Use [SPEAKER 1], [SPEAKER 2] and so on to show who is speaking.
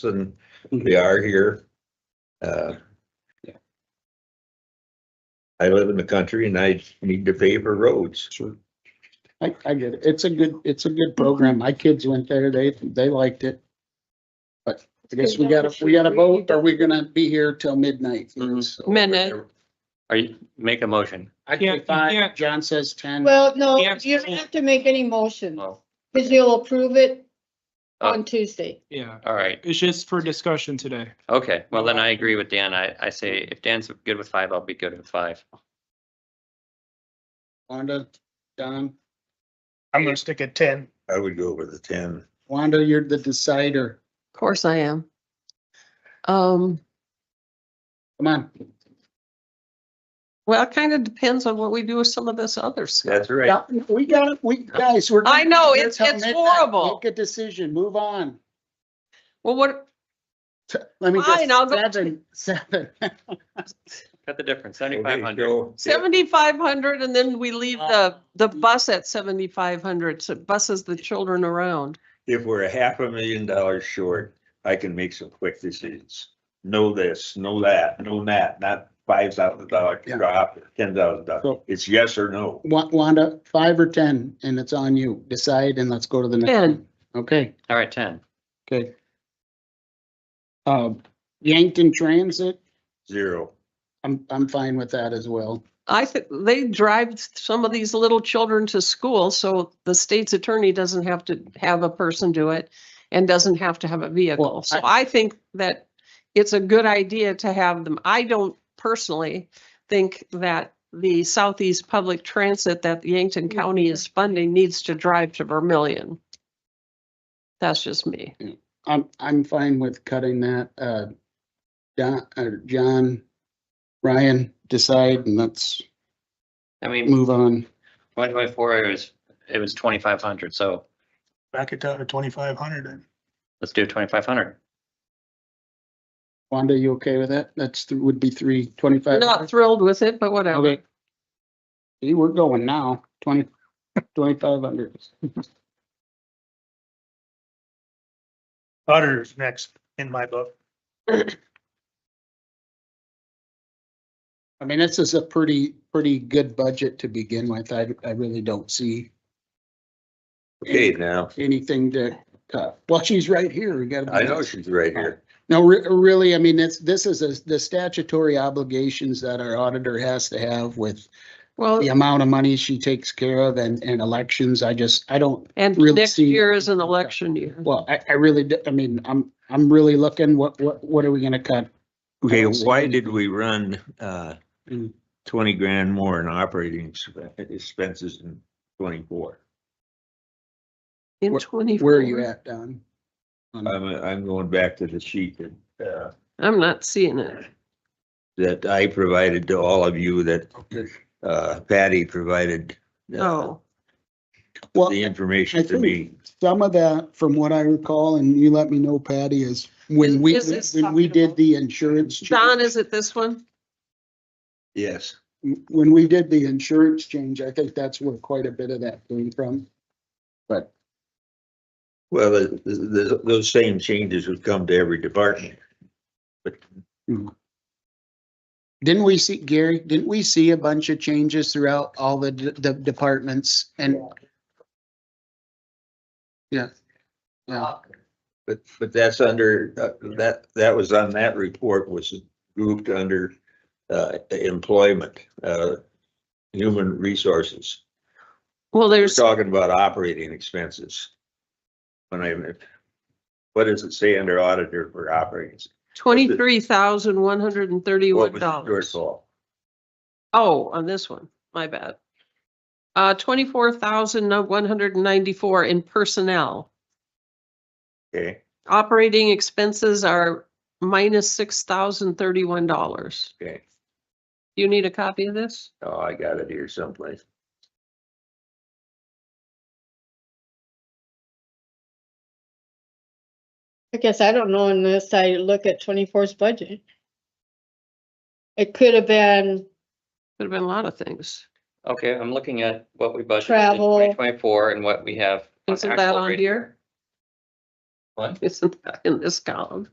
[SPEAKER 1] than we are here. Uh,
[SPEAKER 2] Yeah.
[SPEAKER 1] I live in the country and I need to pave our roads.
[SPEAKER 2] Sure. I, I get it. It's a good, it's a good program. My kids went there. They, they liked it. But I guess we gotta, we gotta vote. Are we gonna be here till midnight?
[SPEAKER 3] Mhm.
[SPEAKER 2] So-
[SPEAKER 4] Minute.
[SPEAKER 3] Are you, make a motion.
[SPEAKER 2] I
[SPEAKER 5] Yeah,
[SPEAKER 2] can
[SPEAKER 5] you
[SPEAKER 2] find,
[SPEAKER 5] can't.
[SPEAKER 2] John says ten.
[SPEAKER 6] Well, no,
[SPEAKER 5] Yeah.
[SPEAKER 6] you don't have to make any motion,
[SPEAKER 3] Oh,
[SPEAKER 6] because you'll approve it
[SPEAKER 3] Oh.
[SPEAKER 6] on Tuesday.
[SPEAKER 5] Yeah,
[SPEAKER 3] all right.
[SPEAKER 5] it's just for discussion today.
[SPEAKER 3] Okay, well then I agree with Dan. I, I say if Dan's good with five, I'll be good with five.
[SPEAKER 2] Wanda, Don,
[SPEAKER 7] I'm gonna stick at ten.
[SPEAKER 1] I would go with the ten.
[SPEAKER 2] Wanda, you're the decider.
[SPEAKER 4] Of course I am. Um,
[SPEAKER 2] Come on.
[SPEAKER 4] well, it kind of depends on what we do with some of this other stuff.
[SPEAKER 1] That's right.
[SPEAKER 2] Yeah, We got it. We, guys, we're.
[SPEAKER 4] I know,
[SPEAKER 2] we're
[SPEAKER 4] it's-
[SPEAKER 2] till
[SPEAKER 4] it's
[SPEAKER 2] midnight.
[SPEAKER 4] horrible.
[SPEAKER 2] Make a decision. Move on.
[SPEAKER 4] Well, what,
[SPEAKER 2] Let me
[SPEAKER 4] Fine, I'll
[SPEAKER 2] just,
[SPEAKER 4] go-
[SPEAKER 2] seven, seven.
[SPEAKER 3] Cut the difference, seventy-five
[SPEAKER 1] Okay,
[SPEAKER 3] hundred.
[SPEAKER 1] so-
[SPEAKER 4] seventy-five hundred and then we leave the, the bus at seventy-five hundred, so it buses the children around.
[SPEAKER 1] If we're a half a million dollars short, I can make some quick decisions. Know this, know that, know that, not five thousand dollar
[SPEAKER 2] Yeah.
[SPEAKER 1] drop, ten thousand dollars.
[SPEAKER 2] So-
[SPEAKER 1] It's yes or no.
[SPEAKER 2] Wa- Wanda, five or ten, and it's on you. Decide and let's go to the next
[SPEAKER 4] 10.
[SPEAKER 2] one. Okay,
[SPEAKER 3] All right, ten.
[SPEAKER 2] okay. Uh, Yankton Transit,
[SPEAKER 1] Zero.
[SPEAKER 2] I'm, I'm fine with that as well.
[SPEAKER 4] I think they drive some of these little children to school, so the state's attorney doesn't have to have a person do it and doesn't have to have a vehicle.
[SPEAKER 2] Well,
[SPEAKER 4] So I think that it's a good idea to have them. I don't personally think that the Southeast Public Transit that Yankton County is funding needs to drive to Vermillion. That's just me.
[SPEAKER 2] I'm, I'm fine with cutting that, uh, Don, uh, John, Ryan, decide and let's
[SPEAKER 3] I mean,
[SPEAKER 2] move on.
[SPEAKER 3] twenty twenty-four, it was, it was twenty-five hundred, so
[SPEAKER 7] Back it down to twenty-five hundred then.
[SPEAKER 3] let's do twenty-five hundred.
[SPEAKER 2] Wanda, you okay with that? That's, th- would be three twenty-five.
[SPEAKER 4] Not thrilled with it, but whatever.
[SPEAKER 2] Okay. See, we're going now, twenty, twenty-five hundred.
[SPEAKER 7] Auditor's next in my book.
[SPEAKER 2] I mean, this is a pretty, pretty good budget to begin with. I, I really don't see
[SPEAKER 1] Okay, now,
[SPEAKER 2] anything to cut. Well, she's right here. We gotta. be
[SPEAKER 1] I know
[SPEAKER 2] nice.
[SPEAKER 1] she's right here.
[SPEAKER 2] No, re- really, I mean, it's, this is a- the statutory obligations that our auditor has to have with
[SPEAKER 4] Well,
[SPEAKER 2] the amount of money she takes care of and, and elections. I just, I don't,
[SPEAKER 4] and
[SPEAKER 2] really
[SPEAKER 4] next
[SPEAKER 2] see-
[SPEAKER 4] year is an election year.
[SPEAKER 2] well, I, I really, d- I mean, I'm, I'm really looking, what, what, what are we gonna cut?
[SPEAKER 1] Okay,
[SPEAKER 2] don't see
[SPEAKER 1] why
[SPEAKER 2] any-
[SPEAKER 1] did we run, uh,
[SPEAKER 2] Mm.
[SPEAKER 1] twenty grand more in operating exp- expenses in twenty-four?
[SPEAKER 4] In
[SPEAKER 2] Where-
[SPEAKER 4] twenty-four.
[SPEAKER 2] Where are you at, Don? Um, On-
[SPEAKER 1] I'm, I'm going back to the sheet that, uh,
[SPEAKER 4] I'm not seeing it.
[SPEAKER 1] that I provided to all of you that,
[SPEAKER 2] Okay.
[SPEAKER 1] uh, Patty provided. uh,
[SPEAKER 4] Oh,
[SPEAKER 2] Well,
[SPEAKER 1] The
[SPEAKER 2] I
[SPEAKER 1] information to
[SPEAKER 2] think-
[SPEAKER 1] me.
[SPEAKER 2] some of that, from what I recall, and you let me know, Patty, is when we,
[SPEAKER 4] Is this
[SPEAKER 2] when we
[SPEAKER 4] talking
[SPEAKER 2] did
[SPEAKER 4] about-
[SPEAKER 2] the insurance. change-
[SPEAKER 4] Don, is it this one?
[SPEAKER 1] Yes.
[SPEAKER 2] When we did the insurance change, I think that's where quite a bit of that came from. But
[SPEAKER 1] Well, the, the- the, those same changes would come to every department.
[SPEAKER 2] didn't we see, Gary, didn't we see a bunch of changes throughout all the, d- the departments and? Yeah. Yeah,
[SPEAKER 1] But, but that's under, uh, that, that was on that report was grouped under, uh, employment, uh, human resources.
[SPEAKER 4] Well,
[SPEAKER 1] We're
[SPEAKER 4] there's,
[SPEAKER 1] talking about operating expenses. When I, what does it say under auditor for operating?
[SPEAKER 4] twenty-three thousand, one hundred and thirty-one
[SPEAKER 1] What was your
[SPEAKER 4] dollars.
[SPEAKER 1] fault?
[SPEAKER 4] Oh, on this one, my bad. Uh, twenty-four thousand, one hundred and ninety-four in personnel.
[SPEAKER 1] Okay,
[SPEAKER 4] Operating expenses are minus six thousand, thirty-one dollars.
[SPEAKER 1] okay.
[SPEAKER 4] You need a copy of this?
[SPEAKER 1] Oh, I got it here someplace.
[SPEAKER 6] I guess I don't know unless I look at 24's budget. It could have been,
[SPEAKER 4] Could have been a lot of things.
[SPEAKER 3] Okay, I'm looking at what we budgeted in
[SPEAKER 6] Travel.
[SPEAKER 3] twenty twenty-four and what we have. on
[SPEAKER 4] Isn't
[SPEAKER 3] actual
[SPEAKER 4] that on
[SPEAKER 3] rate.
[SPEAKER 4] here?
[SPEAKER 3] What?
[SPEAKER 4] Isn't that in this column?